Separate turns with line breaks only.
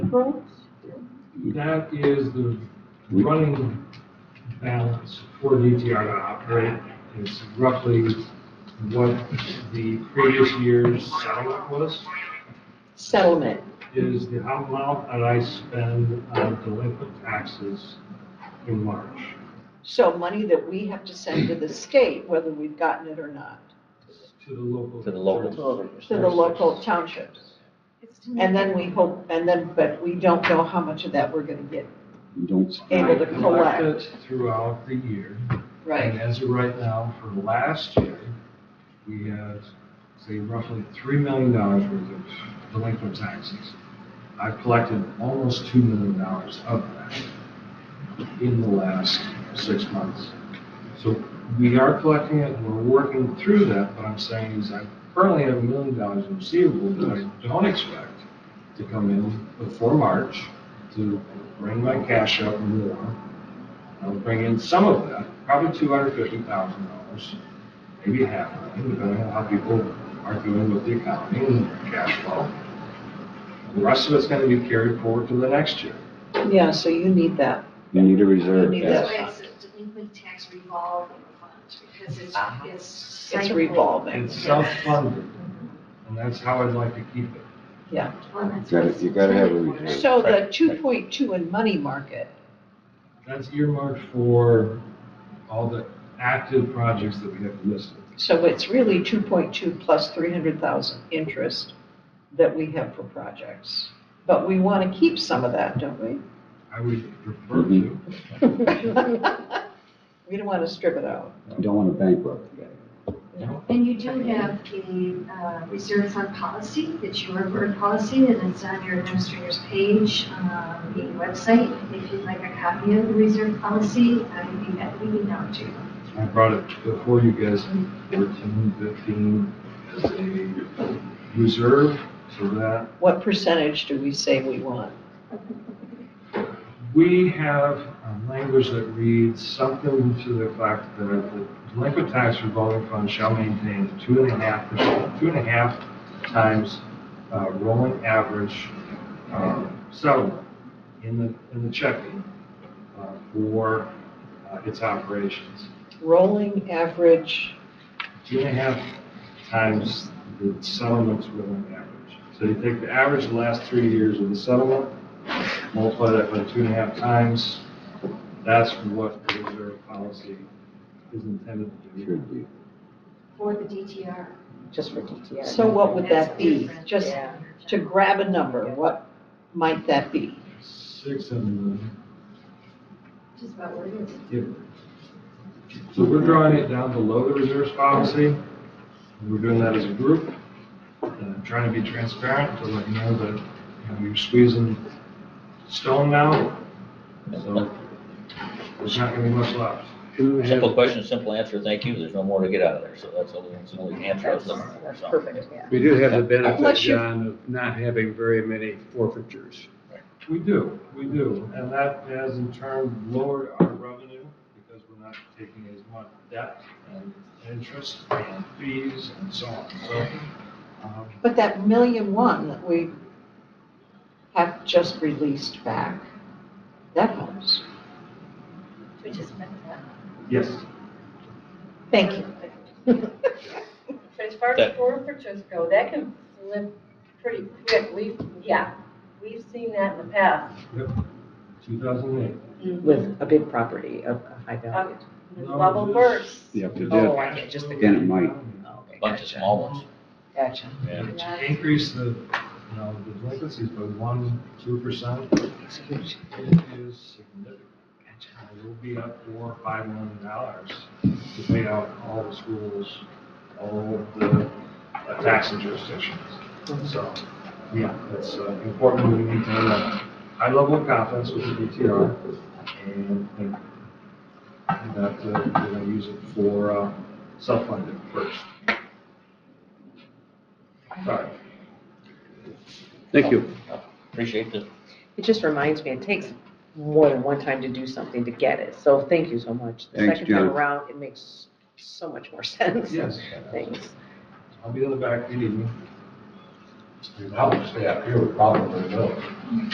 roads?
That is the running balance for DTR to operate. It's roughly what the previous year's settlement was,
Settlement.
is the amount that I spend on delinquent taxes in March.
So money that we have to send to the state, whether we've gotten it or not,
To the local.
To the local.
jurisdictions.
to the local townships. And then we hope, and then, but we don't know how much of that we're gonna get,
You don't
able to
I collect
collect,
it throughout the year. And
right?
as of right now, for last year, we had, say, roughly three million dollars worth of delinquent taxes. I've collected almost two million dollars of that in the last six months. So we are collecting it, and we're working through that, but I'm saying is I currently have a million dollars in receivables that I don't expect to come in before March to bring my cash up more. I'll bring in some of that, probably two hundred fifty thousand dollars, maybe half of it, depending on how people are doing with the economy and cash flow. The rest of it's gonna be carried forward to the next year.
Yeah, so you need that.
You need a reserve,
You need
yes.
that.
That's why it's a delinquent tax revolving fund, because it's,
Uh-huh.
it's
It's
cycled.
revolving.
It's self-funded, and that's how I'd like to keep it.
Well, that's
Gotta- you gotta have a
what it's-
reserve.
So the
Right.
two point two in money market,
That's earmarked for all the active projects that we have listed.
so it's really two point two plus three hundred thousand interest that we have for projects. But we wanna keep some of that, don't we?
I would prefer to.
We don't wanna strip it out.
You don't want to bankrupt.
And you do have the uh, reserve fund policy, it's your board policy, and it's on your administrator's page on the website. If you'd like a copy of the reserve policy, I'd be happy to email it to you.
I brought it before you guys, fourteen, fifteen, as a reserve, so that
What percentage do we say we want?
we have a language that reads something to the effect that the delinquent tax revolving fund shall maintain two and a half percent, two and a half times uh, rolling average um, settlement in the, in the checking uh, for uh, its operations.
Rolling average,
two and a half times the settlement's rolling average. So you take the average of the last three years of the settlement, multiply that by two and a half times, that's what the reserve policy is intended to do.
Should be.
For the DTR.
just for DTR.
so what would that
That's
be?
different.
Just
Yeah.
to grab a number, what might that be?
Six and,
Just about what it is.
yeah. So we're drawing it down below the reserves policy. We're doing that as a group. And I'm trying to be transparent to let you know that, you know, we're squeezing stone now. So there's not gonna be much left.
Simple question, simple answer, thank you, there's no more to get out of there, so that's the only, that's the only answer I was
That's,
looking for,
that's
so.
perfect, yeah.
We do have the benefit,
Unless you-
John, of not having very many forfeitures.
We do, we do, and that has in turn lowered our revenue because we're not taking as much debt and interest and fees and so on, so. um,
But that million one that we have just released back, that helps.
Which is meant that.
Yes,
Thank you.
But as far as
That-
forfeitures go, that can flip pretty quick. We've, yeah, we've seen that in the past.
two thousand eight.
Mm-hmm.
With a big property of a high value.
The bubble bursts.
Yep, they
Oh,
did.
I get just the.
Again, it might.
Oh, Okay,
Bunch of
gotcha.
small ones.
Gotcha.
To increase the, you know, the delinquencies by one, two percent
It's huge.
is significant. We'll be up four, or five million dollars to pay out all the schools, all of the uh, taxing jurisdictions. So, yeah, it's uh, important we maintain a high level of confidence with the DTR and and that uh, we're going to use it for uh, self-funding first. Sorry.
Thank you.
Appreciate the
It just reminds me, it takes more than one time to do something to get it, so thank you so much. The
Thanks,
Second time
John.
around, it makes so much more sense.
Yes.
Thanks.
I'll be in the back, good evening.
Obviously, up here, we probably will.